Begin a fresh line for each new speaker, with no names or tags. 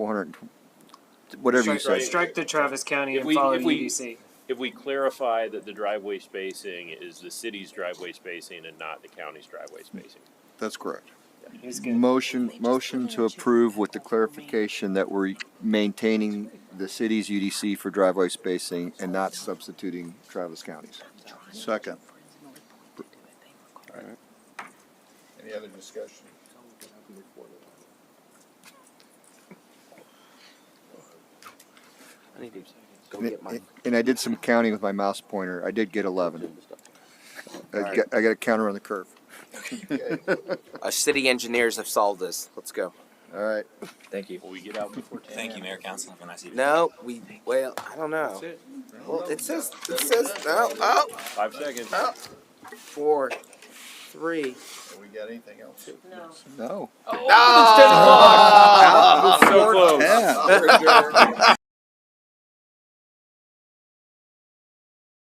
400, whatever you
Strike-
say.
Strike the Travis County
If
and
we-
follow
if we-
UDC.
If we clarify that the driveway spacing is the city's driveway spacing and not the county's driveway spacing.
That's correct.
He's good.
Motion, motion to approve with the clarification that we're maintaining the city's UDC for driveway spacing and not substituting Travis County's.
Second.
Any other discussion?
I need to go get my.
And I did some counting with my mouse pointer. I did get 11. I
Alright.
got, I got a counter on the curve.
Us uh, city engineers have solved this. Let's go.
All right.
Thank you.
Will we get out before ten?
Thank you, Mayor Council. Have a nice evening.
No, we, well, I don't know. Well, it says, it says, oh, oh,
Five seconds.
Oh. four, three.
Have we got anything else?
No.
Oh!
So close.
Yeah.
We're adjourned.